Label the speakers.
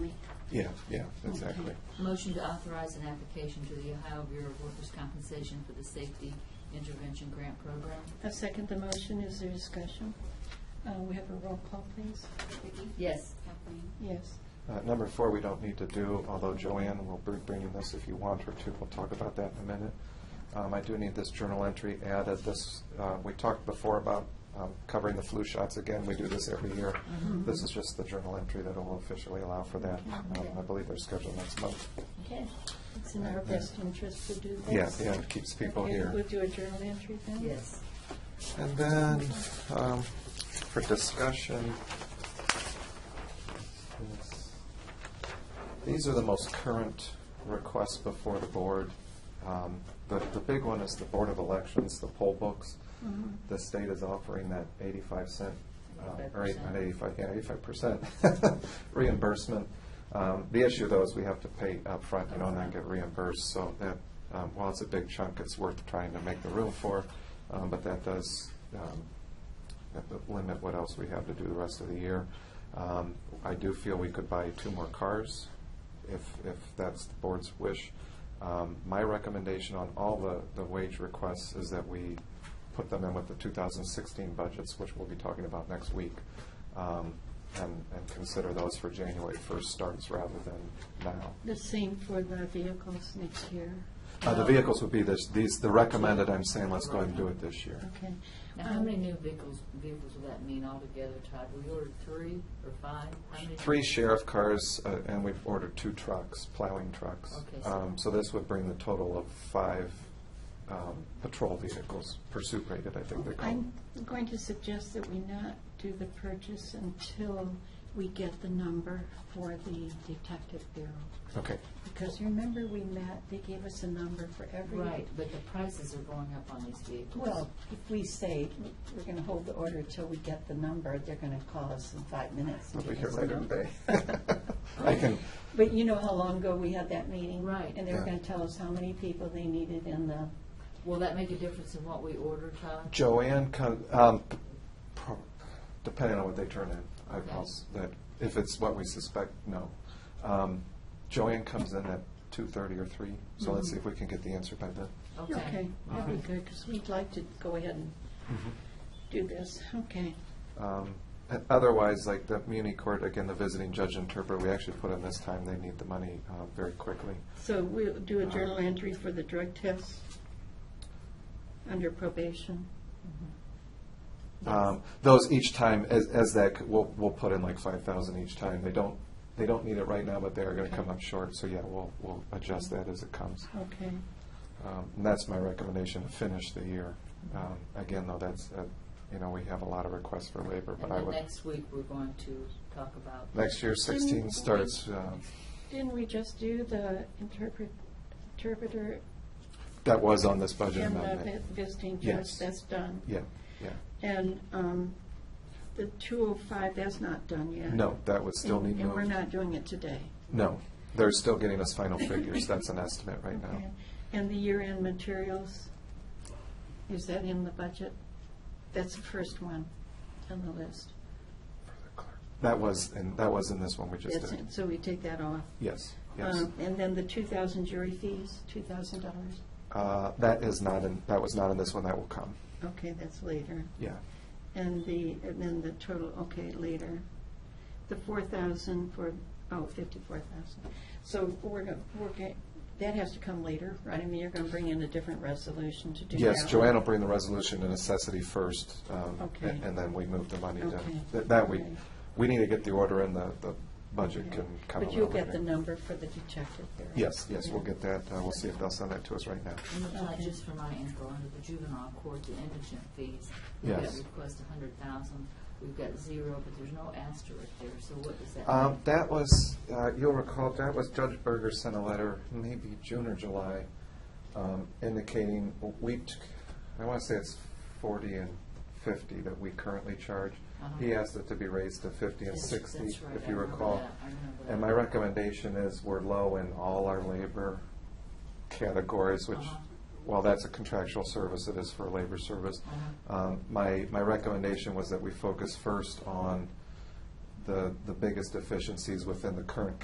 Speaker 1: Yeah, yeah, exactly.
Speaker 2: Motion to authorize an application to the Ohio Bureau of Workers' Compensation for the Safety Intervention Grant Program.
Speaker 3: I second the motion. Is there discussion? Uh, We have a roll call, please.
Speaker 4: Vicki?
Speaker 2: Yes.
Speaker 4: Kathleen?
Speaker 3: Yes.
Speaker 1: Uh, Number four, we don't need to do, although Joanne will be bringing this if you want her to. We'll talk about that in a minute. Um, I do need this journal entry added. This, uh, we talked before about um, covering the flu shots again. We do this every year. This is just the journal entry that will officially allow for that. Um, I believe they're scheduled next month.
Speaker 3: Okay. It's in our best interest to do
Speaker 1: Yeah,
Speaker 3: this.
Speaker 1: yeah, it keeps people
Speaker 3: Okay,
Speaker 1: here.
Speaker 3: We'll do a journal entry then?
Speaker 2: Yes.
Speaker 1: And then, um, for discussion, yes. these are the most current requests before the board. Um, The, the big one is the Board of Elections, the poll books.
Speaker 3: Mhm.
Speaker 1: The state is offering that eighty-five cent, um, or eight-
Speaker 2: 85%.
Speaker 1: not eighty-five, yeah, eighty-five percent reimbursement. Um, The issue though is we have to pay upfront, you know, and not get reimbursed, so that, um, while it's a big chunk, it's worth trying to make the room for. Um, But that does um, that would limit what else we have to do the rest of the year. Um, I do feel we could buy two more cars if, if that's the board's wish. Um, My recommendation on all the, the wage requests is that we put them in with the 2016 budgets, which we'll be talking about next week, um, and, and consider those for January 1st starts rather than now.
Speaker 3: The same for the vehicles next year.
Speaker 1: Uh, The vehicles would be this, these, the recommended, I'm saying, let's go ahead and do it this year.
Speaker 3: Okay.
Speaker 2: Now,
Speaker 3: Um,
Speaker 2: how many new vehicles, vehicles will that mean altogether, Todd? We ordered three or five? How many?
Speaker 1: Three sheriff cars, uh, and we've ordered two trucks, plowing trucks.
Speaker 2: Okay, so-
Speaker 1: Um, So this would bring the total of five um, patrol vehicles, pursuit rated, I think they call
Speaker 3: I'm
Speaker 1: them.
Speaker 3: going to suggest that we not do the purchase until we get the number for the detective bureau.
Speaker 1: Okay,
Speaker 3: Because remember, we met, they gave us a number for every.
Speaker 2: Right, but the prices are going up on these vehicles.
Speaker 3: Well, if we say we're going to hold the order till we get the number, they're going to call us in five minutes. and
Speaker 1: we'll be
Speaker 3: give
Speaker 1: here
Speaker 3: us the
Speaker 1: later
Speaker 3: number.
Speaker 1: today. I can,
Speaker 3: But you know how long ago we had that meeting?
Speaker 2: Right.
Speaker 3: And they were
Speaker 1: Yeah.
Speaker 3: going to tell us how many people they needed in the,
Speaker 2: Will that make a difference in what we order, Todd?
Speaker 1: Joanne, con- um, pro- depending on what they turn in, I
Speaker 2: Okay.
Speaker 1: pulse that, if it's what we suspect, no. Um, Joanne comes in at 2:30 or 3, so
Speaker 2: Mm-hmm.
Speaker 1: let's see if we can get the answer by then.
Speaker 3: okay,
Speaker 2: All
Speaker 3: that'd
Speaker 2: right.
Speaker 3: be good, because we'd like to go ahead and do this. Okay.
Speaker 1: Um, and Otherwise, like the Muni Court, again, the visiting judge interpreter, we actually put in this time, they need the money uh, very quickly.
Speaker 3: So we'll do a journal entry for the drug test under probation.
Speaker 1: Um, Those each time, as, as that, c- we'll, we'll put in like five thousand each time. They don't, they don't need it right now, but they are gonna come up short, so yeah, we'll, we'll adjust that as it comes.
Speaker 3: Okay.
Speaker 1: Um, And that's my recommendation, to finish the year. Um, Again, though, that's, uh, you know, we have a lot of requests for labor, but
Speaker 2: And
Speaker 1: I
Speaker 2: then
Speaker 1: would,
Speaker 2: next week, we're going to talk about.
Speaker 1: next year sixteen starts, uh,
Speaker 3: Didn't we just do the interpret, interpreter
Speaker 1: that was on this budget
Speaker 3: and the
Speaker 1: amendment.
Speaker 3: visiting
Speaker 1: Yes.
Speaker 3: judge? That's done.
Speaker 1: Yeah, yeah.
Speaker 3: And um, the 205, that's not done yet.
Speaker 1: No, that would still
Speaker 3: And-
Speaker 1: need
Speaker 3: And we're
Speaker 1: moved.
Speaker 3: not doing it today.
Speaker 1: No, they're still getting us final figures, that's an estimate right now.
Speaker 3: Okay. And the year-end materials, is that in the budget? That's the first one on the list.
Speaker 1: That was, and that was in this one we just
Speaker 3: That's
Speaker 1: did.
Speaker 3: it, so we take that off.
Speaker 1: Yes, yes.
Speaker 3: Um, And then the 2,000 jury fees, $2,000.
Speaker 1: Uh, That is not in, that was not in this one, that will come,
Speaker 3: Okay, that's later.
Speaker 1: yeah.
Speaker 3: And the, and then the total, okay, later. The 4,000 for, oh, 54,000. So we're going, we're, ga- that has to come later, right? I mean, you're going to bring in a different resolution to do that.
Speaker 1: Yes, Joanne will bring the resolution to necessity first, um,
Speaker 3: Okay.
Speaker 1: and and then we move the money to,
Speaker 3: Okay.
Speaker 1: that- that we,
Speaker 3: Okay.
Speaker 1: we need to get the order in, the, the budget can come a
Speaker 3: But you'll
Speaker 1: little
Speaker 3: get the
Speaker 1: later.
Speaker 3: number for the detective there.
Speaker 1: Yes, yes, we'll get that, Uh, we'll see if they'll send that to us right now.
Speaker 2: And Todd,
Speaker 3: Okay.
Speaker 2: just for my info, under the juvenile court, the indigent fees, we've
Speaker 1: Yes.
Speaker 2: got request a hundred thousand, we've got zero, but there's no asterisk there, so what does that mean?
Speaker 1: Um, That was, uh, you'll recall, that was Judge Berger sent a letter, maybe June or July, um, indicating we, t- I want to say it's forty and fifty that we currently charge.
Speaker 2: Uh-huh.
Speaker 1: He asked it to be raised to fifty and
Speaker 2: That's-
Speaker 1: sixty,
Speaker 2: that's right,
Speaker 1: if
Speaker 2: I
Speaker 1: you
Speaker 2: remember
Speaker 1: recall.
Speaker 2: that, I remember that.
Speaker 1: And my recommendation is we're low in all our labor categories, which,
Speaker 2: Uh-huh.
Speaker 1: while that's a contractual service, it is for labor service.
Speaker 2: Uh-huh.
Speaker 1: Um, My, my recommendation was that we focus first on the, the biggest deficiencies within the current